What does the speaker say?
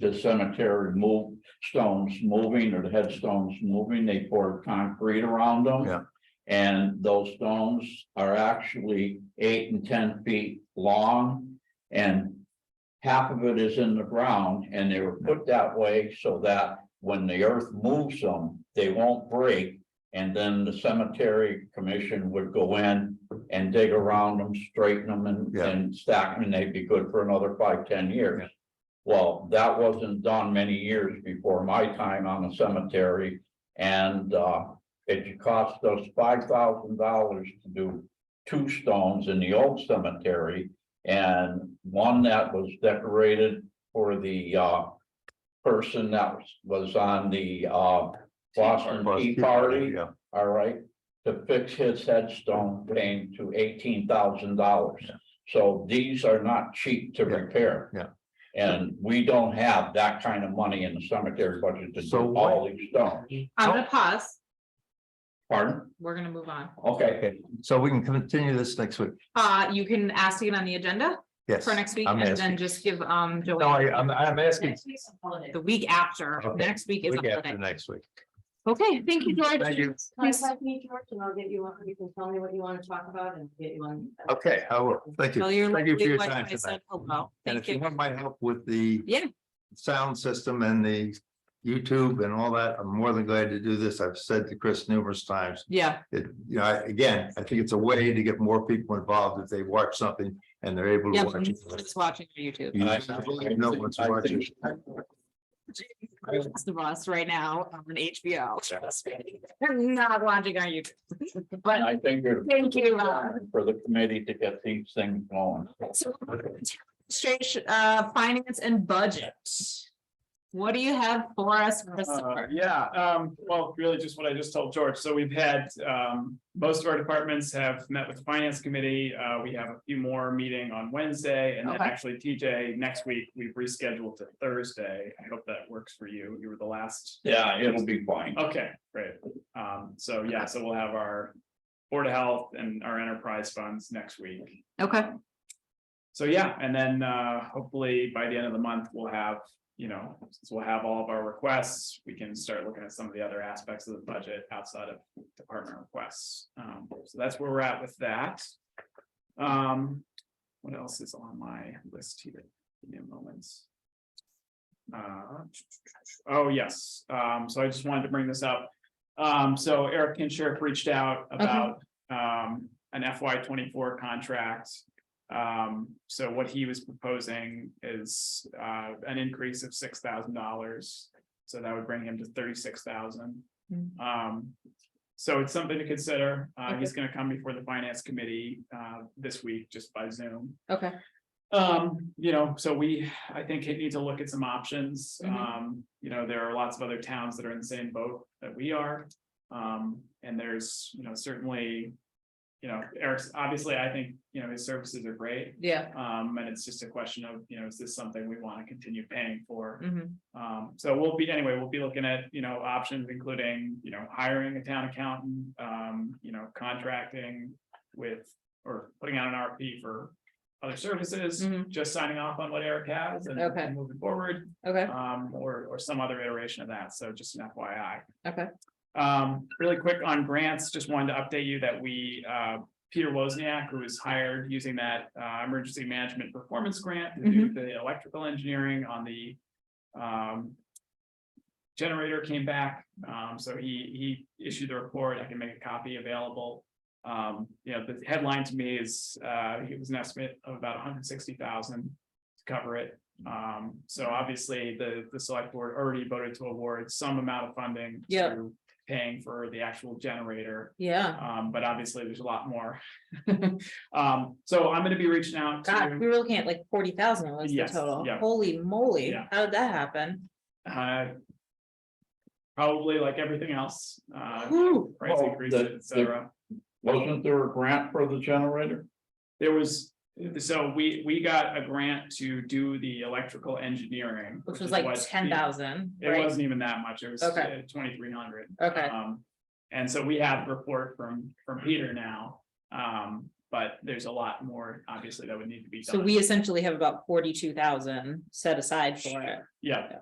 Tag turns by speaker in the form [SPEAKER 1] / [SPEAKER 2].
[SPEAKER 1] the cemetery moved stones moving or the headstones moving, they poured concrete around them.
[SPEAKER 2] Yeah.
[SPEAKER 1] And those stones are actually eight and ten feet long and half of it is in the ground and they were put that way so that when the earth moves them, they won't break. And then the cemetery commission would go in and dig around them, straighten them and,
[SPEAKER 2] Yeah.
[SPEAKER 1] and stack them, and they'd be good for another five, ten years. Well, that wasn't done many years before my time on the cemetery. And, uh, it cost us five thousand dollars to do two stones in the old cemetery. And one that was decorated for the uh. Person that was was on the uh Boston Tea Party,
[SPEAKER 2] Yeah,
[SPEAKER 1] all right? To fix his headstone came to eighteen thousand dollars. So these are not cheap to
[SPEAKER 2] Yeah,
[SPEAKER 1] repair.
[SPEAKER 2] yeah.
[SPEAKER 1] And we don't have that kind of money in the cemetery budget to
[SPEAKER 2] So
[SPEAKER 1] do
[SPEAKER 2] what-
[SPEAKER 1] all these stones.
[SPEAKER 3] I'm gonna pause.
[SPEAKER 1] Pardon?
[SPEAKER 3] We're gonna move on.
[SPEAKER 1] Okay,
[SPEAKER 2] okay, so we can continue this next week,
[SPEAKER 3] Uh, you can ask to get on the agenda
[SPEAKER 2] yes.
[SPEAKER 3] for next week
[SPEAKER 2] I'm
[SPEAKER 3] and then
[SPEAKER 2] asking.
[SPEAKER 3] just give, um,
[SPEAKER 2] No,
[SPEAKER 3] Joanne,
[SPEAKER 2] I, I'm, I'm asking
[SPEAKER 3] the week after,
[SPEAKER 2] Okay.
[SPEAKER 3] next week is.
[SPEAKER 2] week
[SPEAKER 3] a
[SPEAKER 2] after
[SPEAKER 3] holiday.
[SPEAKER 2] next week.
[SPEAKER 3] Okay, thank you, George.
[SPEAKER 2] Thank you.
[SPEAKER 3] Yes.
[SPEAKER 4] Contact me, George, and I'll get you on, you can tell me what you want to talk about and get you on.
[SPEAKER 2] Okay, I will, thank you.
[SPEAKER 3] Tell your
[SPEAKER 2] Thank you for
[SPEAKER 3] lovely
[SPEAKER 2] your
[SPEAKER 3] wife
[SPEAKER 2] time
[SPEAKER 3] I said
[SPEAKER 2] tonight.
[SPEAKER 3] hello.
[SPEAKER 2] And
[SPEAKER 3] Thank
[SPEAKER 2] if you
[SPEAKER 3] you.
[SPEAKER 2] want my help with the.
[SPEAKER 3] Yeah.
[SPEAKER 2] Sound system and the YouTube and all that, I'm more than glad to do this. I've said to Chris numerous times.
[SPEAKER 3] Yeah,
[SPEAKER 2] It, you know, I- again, I think it's a way to get more people involved if they watch something and they're able
[SPEAKER 3] yeah,
[SPEAKER 2] to watch. it.
[SPEAKER 3] just watching your YouTube.
[SPEAKER 2] You
[SPEAKER 1] I-
[SPEAKER 2] never really know what's
[SPEAKER 1] I think-
[SPEAKER 2] watching.
[SPEAKER 3] Most of us right now on HBO. trust me. They're Not watching our YouTube,
[SPEAKER 1] and
[SPEAKER 3] but
[SPEAKER 1] I think there's
[SPEAKER 3] thank you. uh,
[SPEAKER 1] for the committee to get these things going.
[SPEAKER 3] So, Administration, uh, finance and budget. What do you have for us?
[SPEAKER 5] Uh,
[SPEAKER 3] Christopher?
[SPEAKER 5] Yeah, um, well, really just what I just told George. So we've had, um, most of our departments have met with the finance committee. Uh, we have a few more meeting on Wednesday and then
[SPEAKER 3] Okay.
[SPEAKER 5] actually TJ, next week, we've rescheduled to Thursday. I hope that works for you. You were the last.
[SPEAKER 1] Yeah, it'll be fine.
[SPEAKER 5] Okay, great. Um, so yeah, so we'll have our Board of Health and our enterprise funds next week.
[SPEAKER 2] Uh,
[SPEAKER 3] Okay,
[SPEAKER 5] So yeah, and then uh hopefully by the end of the month, we'll have, you know, since we'll have all of our requests. We can start looking at some of the other aspects of the budget outside of department requests. Um, so that's where we're at with that. Um, what else is on my list here? Give me a moment. Uh, oh, yes, um, so I just wanted to bring this up. Um, so Eric Kinshirk reached out about um an FY twenty-four contract. Um, so what he was proposing is uh an increase of six thousand dollars. So that would bring him to thirty-six thousand.
[SPEAKER 3] Hmm.
[SPEAKER 5] Um, so it's something to consider. Uh,
[SPEAKER 3] Okay.
[SPEAKER 5] he's gonna come before the finance committee uh this week just by Zoom.
[SPEAKER 3] okay,
[SPEAKER 5] Um, you know, so we, I think it needs to look at some options.
[SPEAKER 3] Mhm.
[SPEAKER 5] Um, you know, there are lots of other towns that are in the same boat that we are. Um, and there's, you know, certainly. You know, Eric's, obviously, I think, you know, his services are great.
[SPEAKER 3] yeah.
[SPEAKER 5] Um, and it's just a question of, you know, is this something we want to continue paying for?
[SPEAKER 3] mhm.
[SPEAKER 5] Um, so we'll be, anyway, we'll be looking at, you know, options including, you know, hiring a town accountant, um, you know, contracting with, or putting out an RFP for other services,
[SPEAKER 3] Mhm.
[SPEAKER 5] just signing off on what Eric has and
[SPEAKER 3] Okay.
[SPEAKER 5] and moving forward,
[SPEAKER 3] Okay,
[SPEAKER 5] um, or, or some other iteration of that. So just an FYI.
[SPEAKER 3] okay.
[SPEAKER 5] Um, really quick on grants, just wanted to update you that we, uh, Peter Wozniak, who was hired using that, uh, emergency management performance grant to
[SPEAKER 3] Mm-hmm.
[SPEAKER 5] do the electrical engineering on the, um, generator came back, um, so he, he issued the report. I can make a copy available. Um, you know, the headline to me is, uh, it was an estimate of about hundred sixty thousand to cover it. Um, so obviously the, the select board already voted to award some amount of funding.
[SPEAKER 3] Yeah.
[SPEAKER 5] to Paying for the actual generator,
[SPEAKER 3] Yeah,
[SPEAKER 5] um, but obviously there's a lot more. Um, so I'm gonna be reaching out
[SPEAKER 3] God, we
[SPEAKER 5] to,
[SPEAKER 3] were looking at like forty thousand was the
[SPEAKER 5] Yes,
[SPEAKER 3] total.
[SPEAKER 5] yeah.
[SPEAKER 3] Holy moly,
[SPEAKER 5] Yeah.
[SPEAKER 3] how did that happen?
[SPEAKER 5] uh. Probably like everything else, uh,
[SPEAKER 3] Whew.
[SPEAKER 5] price
[SPEAKER 1] Well,
[SPEAKER 5] increases,
[SPEAKER 1] the-
[SPEAKER 5] et cetera.
[SPEAKER 1] Wasn't there a grant for the generator?
[SPEAKER 5] There was, so we, we got a grant to do the electrical engineering.
[SPEAKER 3] Which
[SPEAKER 5] is
[SPEAKER 3] was like
[SPEAKER 5] what
[SPEAKER 3] ten
[SPEAKER 5] the-
[SPEAKER 3] thousand,
[SPEAKER 5] It uh,
[SPEAKER 3] right?
[SPEAKER 5] wasn't even that much, it was uh,
[SPEAKER 3] Okay.
[SPEAKER 5] twenty-three hundred.
[SPEAKER 3] Okay,
[SPEAKER 5] Um, and so we have a report from, from Peter now. Um, but there's a lot more, obviously, that would need to be done.
[SPEAKER 3] So we essentially have about forty-two thousand set aside for it.
[SPEAKER 5] Yeah,